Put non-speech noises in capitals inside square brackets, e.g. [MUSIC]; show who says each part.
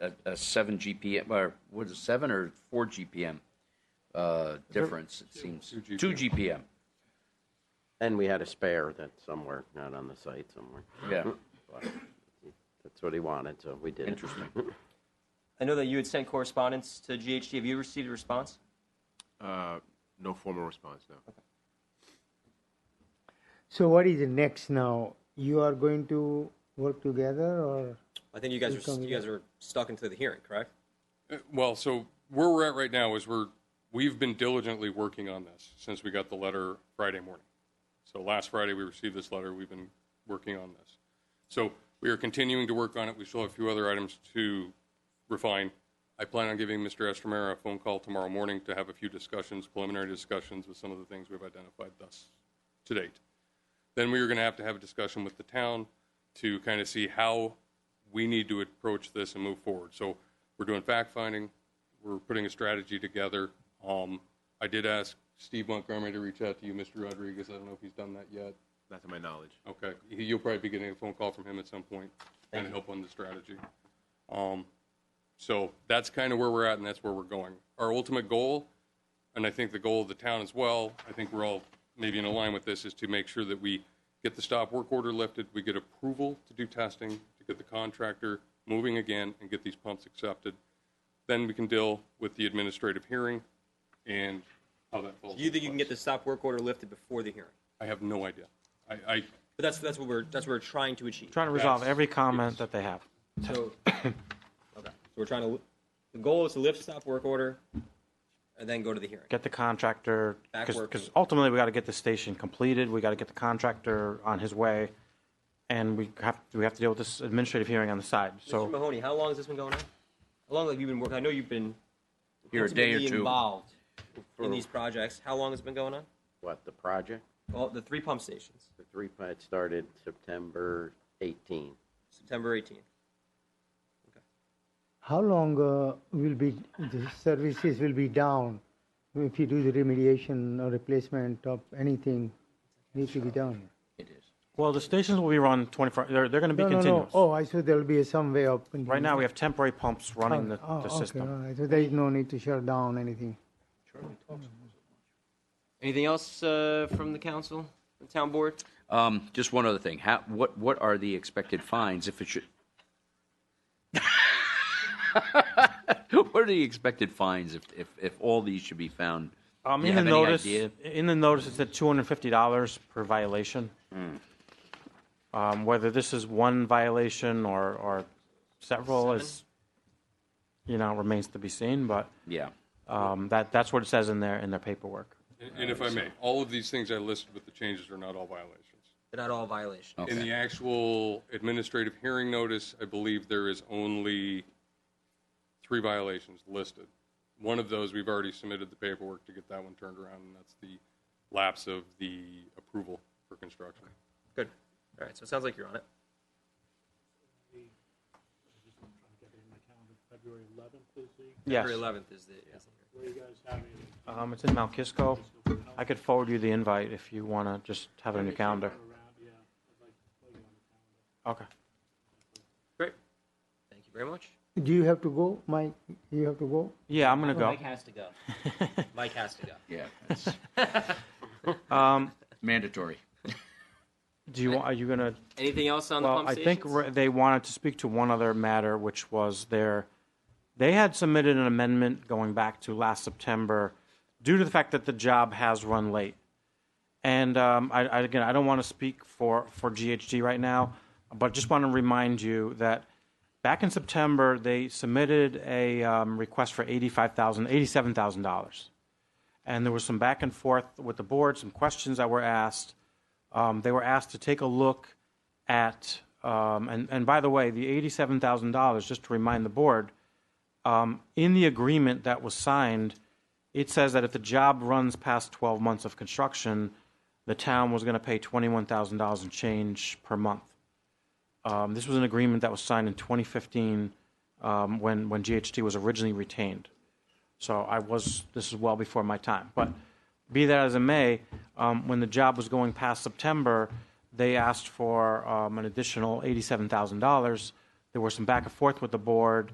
Speaker 1: a, a seven GPM, or what is it, seven or four GPM uh, difference, it seems.
Speaker 2: two
Speaker 1: Two GPM,
Speaker 3: And we had a spare that somewhere, not on the site somewhere.
Speaker 1: yeah,
Speaker 3: That's what he wanted, so we did it.
Speaker 1: interesting.
Speaker 4: I know that you had sent correspondence to GHD. Have you received a response?
Speaker 2: Uh, no formal response, no.
Speaker 5: So what is next now? You are going to work together or?
Speaker 6: I think you guys are
Speaker 5: Who's coming
Speaker 6: you guys are stuck into the hearing, correct?
Speaker 7: Uh, Well, so where we're at right now is we're, we've been diligently working on this since we got the letter Friday morning. So last Friday, we received this letter, we've been working on this. So we are continuing to work on it, we still have a few other items to refine. I plan on giving Mr. Estromera a phone call tomorrow morning to have a few discussions, preliminary discussions with some of the things we've identified thus to date then we were going to have to have a discussion with the town to kind of see how we need to approach this and move forward. So we're doing fact finding, we're putting a strategy together. Um, I did ask Steve Montgomery to reach out to you, Mr. Rodriguez. I don't know if he's done that yet.
Speaker 2: Not to my knowledge.
Speaker 7: Okay, He- you'll probably be getting a phone call from him at some point and help on the strategy. Um, so that's kind of where we're at, and that's where we're going. Our ultimate goal, and I think the goal of the town as well, I think we're all maybe in line with this, is to make sure that we get the stop work order lifted, we get approval to do testing, to get the contractor moving again, and get these pumps accepted. Then we can deal with the administrative hearing and how that falls.
Speaker 6: You think you
Speaker 7: into
Speaker 6: can get
Speaker 7: place.
Speaker 6: the stop work order lifted before the hearing?
Speaker 7: I have no idea. I, I
Speaker 6: But that's that's what we're that's what we're trying to achieve.
Speaker 8: Trying to resolve
Speaker 7: That's-
Speaker 8: every comment that they have.
Speaker 6: So, [COUGHS] okay. So we're trying to. The goal is to lift stop work order, and then go to the hearing.
Speaker 8: Get the contractor,
Speaker 6: Back work.
Speaker 8: because ultimately we got to get the station completed. We got to get the contractor on his way, and we have we have to deal with this administrative hearing on the side.
Speaker 6: Mr.
Speaker 8: So
Speaker 6: Mahoney, how long has this been going on? How long have you been working? I know you've been
Speaker 1: Here, a day or
Speaker 6: intimately
Speaker 1: two.
Speaker 6: involved in these projects. How long has it been going on?
Speaker 3: What, the project?
Speaker 6: Well, the three pump stations,
Speaker 3: The three pit started September 18.
Speaker 6: September 18th.
Speaker 5: How long uh, will be the services will be down if you do the remediation or replacement of anything needs to be done?
Speaker 1: It is.
Speaker 8: well, the stations will be run 24. They're they're going to be
Speaker 5: No, no, no.
Speaker 8: continuous.
Speaker 5: Oh, I thought there'll be some way of.
Speaker 8: Right now we have temporary pumps running the,
Speaker 5: Oh,
Speaker 8: the
Speaker 5: okay,
Speaker 8: system.
Speaker 5: all right. So there is no need to shut down anything.
Speaker 4: Anything else uh, from the council, the town board?
Speaker 1: Um, just one other thing, how, what, what are the expected fines if it should? [LAUGHS] What are the expected fines if, if, if all these should be found?
Speaker 8: Um,
Speaker 1: Do you
Speaker 8: in the
Speaker 1: have any
Speaker 8: notice,
Speaker 1: idea?
Speaker 8: in the notice, it's at two hundred fifty dollars per violation.
Speaker 1: Hmm.
Speaker 8: Um, whether this is one violation or, or several is, you know, remains to be seen. But
Speaker 1: Yeah,
Speaker 8: um, that that's what it says in their in their paperwork.
Speaker 7: And- And if I may, all of these things I listed with the changes are not all violations.
Speaker 6: They're not all violations.
Speaker 8: Oh.
Speaker 7: In the actual administrative hearing notice, I believe there is only three violations listed. One of those, we've already submitted the paperwork to get that one turned around, and that's the lapse of the approval for construction.
Speaker 6: Good. All right. So it sounds like you're on it.
Speaker 9: February 11th is the,
Speaker 8: Yes,
Speaker 6: February 11th is the, is the hearing.
Speaker 9: where you guys having it?
Speaker 8: um, it's in Mount Kisco. I could forward you the invite if you want to just have it on your calendar.
Speaker 9: around, yeah, I'd like to play you on the calendar.
Speaker 8: Okay.
Speaker 6: Great. Thank you very much.
Speaker 5: Do you have to go, Mike? You have to go?
Speaker 8: Yeah, I'm gonna go.
Speaker 4: Mike has to go.
Speaker 6: [LAUGHS] Mike has to go.
Speaker 1: yeah, it's
Speaker 8: Um,
Speaker 1: mandatory.
Speaker 8: do you want? Are you gonna?
Speaker 4: Anything else on the
Speaker 8: Well,
Speaker 4: pump
Speaker 8: I think
Speaker 4: stations?
Speaker 8: re- they wanted to speak to one other matter, which was their, they had submitted an amendment going back to last September due to the fact that the job has run late. And um, I, I, again, I don't want to speak for, for GHD right now, but just want to remind you that back in September, they submitted a um, request for $85,000, $87,000. And there was some back and forth with the board, some questions that were asked. Um, they were asked to take a look at, um, and, and by the way, the $87,000, just to remind the board, um, in the agreement that was signed, it says that if the job runs past 12 months of construction, the town was going to pay $21,000 and change per month. Um, this was an agreement that was signed in 2015 um, when, when GHT was originally retained. So I was, this is well before my time. But be that as it may, um, when the job was going past September, they asked for um, an additional $87,000. There were some back and forth with the board,